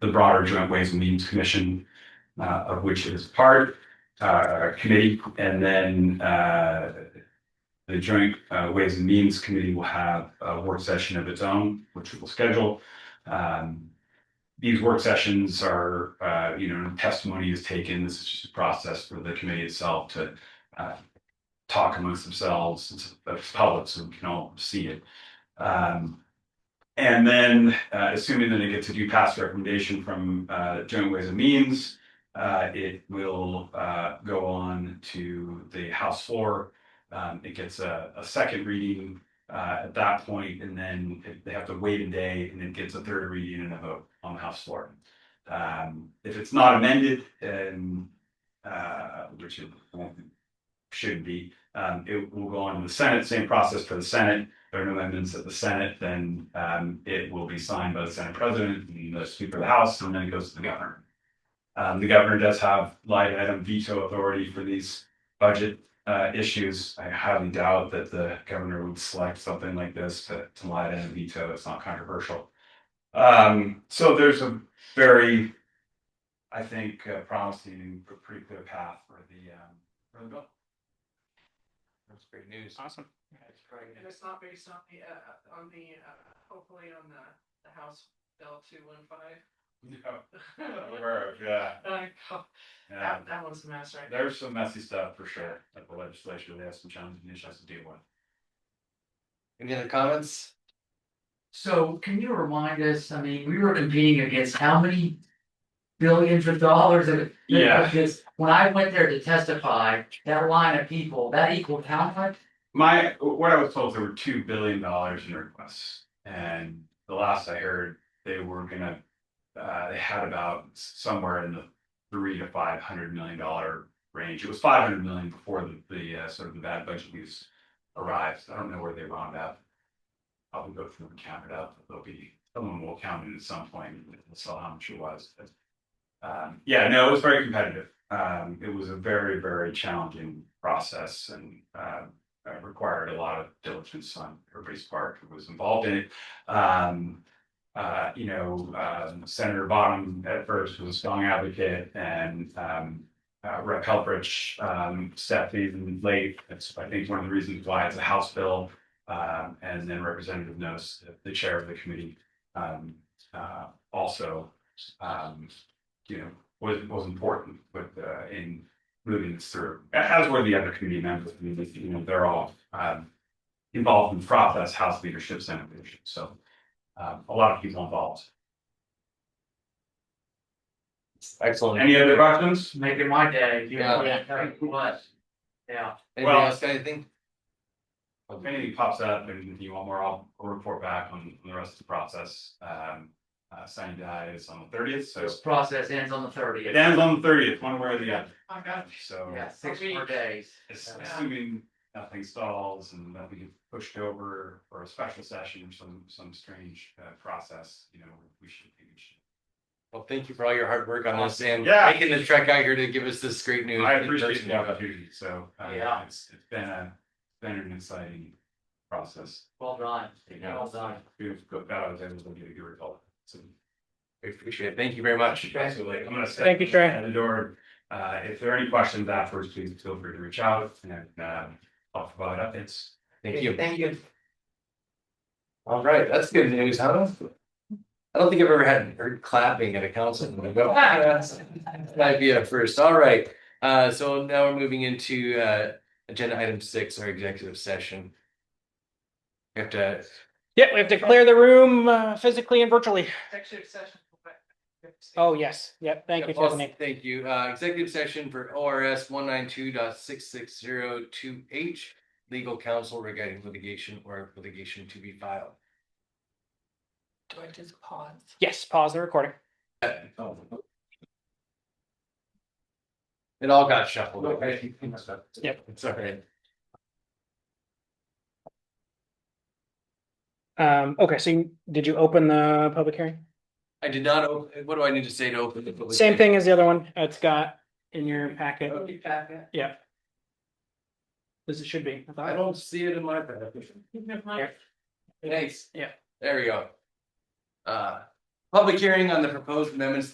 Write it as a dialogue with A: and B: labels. A: the broader Joint Ways and Means Commission, uh, of which it is part, uh, committee, and then, uh, the Joint uh, Ways and Means Committee will have a work session of its own, which we will schedule. Um, these work sessions are, uh, you know, testimony is taken. This is just a process for the committee itself to uh, talk amongst themselves. It's, it's public, so we can all see it. Um, and then, uh, assuming that it gets a due pass recommendation from uh, Joint Ways and Means, uh, it will uh, go on to the House floor. Um, it gets a, a second reading uh, at that point, and then if they have to wait a day, and it gets a third reading and a vote on the House floor. Um, if it's not amended, and uh, which it won't- should be, um, it will go on to the Senate, same process for the Senate. If There are no amendments at the Senate, then um, it will be signed by the Senate President and the Speaker of the House, and then it goes to the Governor. Um, the Governor does have light item veto authority for these budget uh, issues. I highly doubt that the governor would select something like this to, to lie down and veto. It's not controversial. Um, so there's a very, I think, uh, promising, but pretty clear path for the, um, for the bill.
B: That's great news.
C: Awesome.
D: And it's not based on the, uh, on the, uh, hopefully on the, the House Bill two one five. Uh,
A: Aware of, yeah, yeah.
D: That, that one's a mess right there.
A: There's some messy stuff for sure that the legislature, they have some challenging issues to deal with.
B: Any other comments?
E: So can you remind us, I mean, we were competing against how many billions of dollars of.
A: Yeah.
E: Because when I went there to testify, that line of people, that equaled how much?
A: My, what I was told, there were two billion dollars in requests, and the last I heard, they were gonna. Uh, they had about somewhere in the three to five hundred million dollar range, it was five hundred million before the, the, uh, sort of the bad budget news. Arrives, I don't know where they wound up. I'll go through and count it up, there'll be, someone will count it at some point, and we'll saw how much it was, but. Um, yeah, no, it was very competitive, um, it was a very, very challenging process and, uh uh, required a lot of diligence on everybody's part who was involved in it. Um, uh, you know, um, Senator Bottom at first was a strong advocate and, um, uh, Rep. Helfrich, um, stepped in late. That's, I think, one of the reasons why it's a House bill. Um, and then Representative Nos, the chair of the committee, um, uh, also, um, you know, was, was important with, uh, in moving this through, as were the other community members, I mean, they- you know, they're all um involved in the process, House leadership, Senate leadership, so um a lot of people involved.
B: Excellent.
A: Any other questions?
E: Making my day. you know,
B: Yeah.
E: that was- Yeah.
B: Anybody
A: Well-
B: else got anything?
A: If anything pops up and you want more, I'll I'll report back on on the rest of the process. Um uh signing die is on the thirtieth, so
E: This process ends on the
A: it
E: thirtieth.
A: ends on the thirtieth, one way or the other,
D: I got
A: so
E: Yeah, six more days.
A: as- assuming nothing stalls and nothing gets pushed over or a special session or some some strange uh process, you know, we should, we should
B: Well, thank you for all your hard work on this and
A: Yeah.
B: making the trek out here to give us this great news.
A: I
B: in
A: appreciate
B: person.
A: the opportunity, so, uh,
E: Yeah.
A: it's, it's been a, been an exciting process.
E: Well done.
A: Yeah.
E: Well done.
A: We've got, that I was able to get a good result, so.
B: I Appreciate it. Thank you very much.
A: Absolutely, I'm gonna step.
C: Thank you, Trey.
A: At the door, uh, if there are any questions afterwards, please feel free to reach out and, uh, I'll provide updates.
B: Thank you.
E: Thank you.
B: All right, that's good news, huh? I don't think I've ever had heard clapping at a council. meeting, but that's- that Might be a first. All right. Uh, so now we're moving into uh, agenda item six, our executive session. We have to,
C: Yeah, we have to clear the room uh, physically and virtually.
D: executive session.
C: Oh, yes. Yep. Thank you,
B: Yeah, well,
C: Tiffany.
B: Thank you. Uh, executive session for ORS one nine two dot six six zero two H. Legal counsel regarding litigation or litigation to be filed.
D: Do I just pause?
C: Yes, pause the recording.
B: Oh, It all got shuffled. Okay.
C: Yep.
B: It's all right.
C: Um, okay, so you- did you open the public hearing?
B: I did not, op- what do I need to say to open the? public hearing?
C: Same
B: Uh,
C: thing as the other one. It's got in your packet. Yeah. As it should be. I
B: I
C: thought.
B: don't see it in my packet.
D: Even if
C: Here.
B: Thanks.
C: Yeah.
B: There we go. Uh, Public hearing on the proposed amendments